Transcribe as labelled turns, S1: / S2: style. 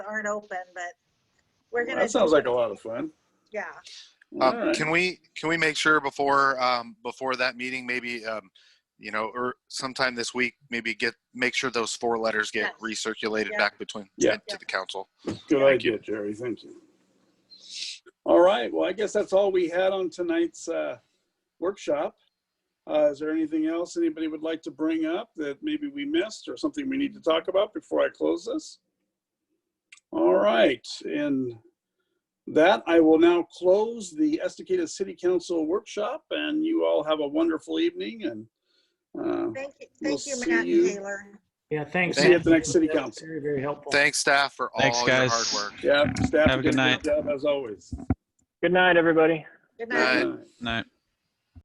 S1: aren't open, but we're gonna.
S2: That sounds like a lot of fun.
S1: Yeah,
S2: All
S3: Um,
S2: right.
S3: can we, can we make sure before, um, before that meeting, maybe, um, you know, or sometime this week, maybe get, make sure those four letters get
S1: Yes.
S3: recirculated
S1: Yeah.
S3: back between,
S2: Yeah.
S3: to the council.
S2: Good idea, Jerry. Thank you. All right. Well, I guess that's all we had on tonight's uh, workshop. Uh, is there anything else anybody would like to bring up that maybe we missed or something we need to talk about before I close this? All right. And that I will now close the Estacada City Council workshop, and you all have a wonderful evening. And uh,
S1: thank you,
S2: We'll
S1: thank you,
S2: see
S1: Matt
S2: you.
S1: and Taylor.
S4: Yeah, thanks.
S2: We'll see you
S4: Matt.
S2: at the next city council.
S4: Very, very helpful.
S3: Thanks staff for
S5: Thanks,
S3: all your hard
S5: guys.
S3: work.
S2: yeah, staff
S5: Have a
S2: did
S5: good night.
S2: job as always.
S6: Good night, everybody.
S1: Good
S3: Bye.
S1: night.
S2: Good night.
S5: No.